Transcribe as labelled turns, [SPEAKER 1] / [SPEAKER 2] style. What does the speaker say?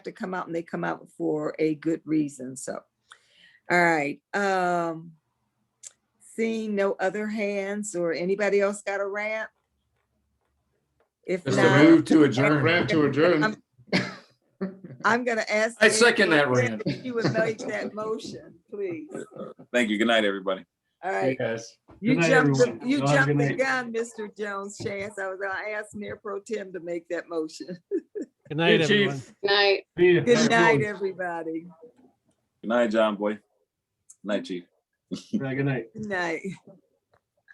[SPEAKER 1] to come out and they come out for a good reason, so. All right, um, seeing no other hands or anybody else got a rant? If
[SPEAKER 2] Just a
[SPEAKER 1] not,
[SPEAKER 2] move to
[SPEAKER 3] Rant
[SPEAKER 2] adjourn.
[SPEAKER 3] rant to adjourn.
[SPEAKER 1] I'm- I'm gonna ask.
[SPEAKER 2] I second
[SPEAKER 1] Nancy
[SPEAKER 2] that rant.
[SPEAKER 1] if You would make that motion, please.
[SPEAKER 4] Thank you. Good night, everybody.
[SPEAKER 1] All right,
[SPEAKER 3] Yes.
[SPEAKER 1] you
[SPEAKER 3] night,
[SPEAKER 1] jumped, the-
[SPEAKER 3] everyone.
[SPEAKER 1] you
[SPEAKER 3] Y'all have a
[SPEAKER 1] jumped the
[SPEAKER 3] good night.
[SPEAKER 1] gun, Mr. Jones Chance. I was gonna ask Mayor Pro Tem to make that motion.
[SPEAKER 5] Good night,
[SPEAKER 2] Hey, Chief.
[SPEAKER 5] everyone.
[SPEAKER 6] Night.
[SPEAKER 1] Good night, everybody.
[SPEAKER 4] Good night, John Boy. Night, Chief.
[SPEAKER 3] Good night.
[SPEAKER 1] Good night.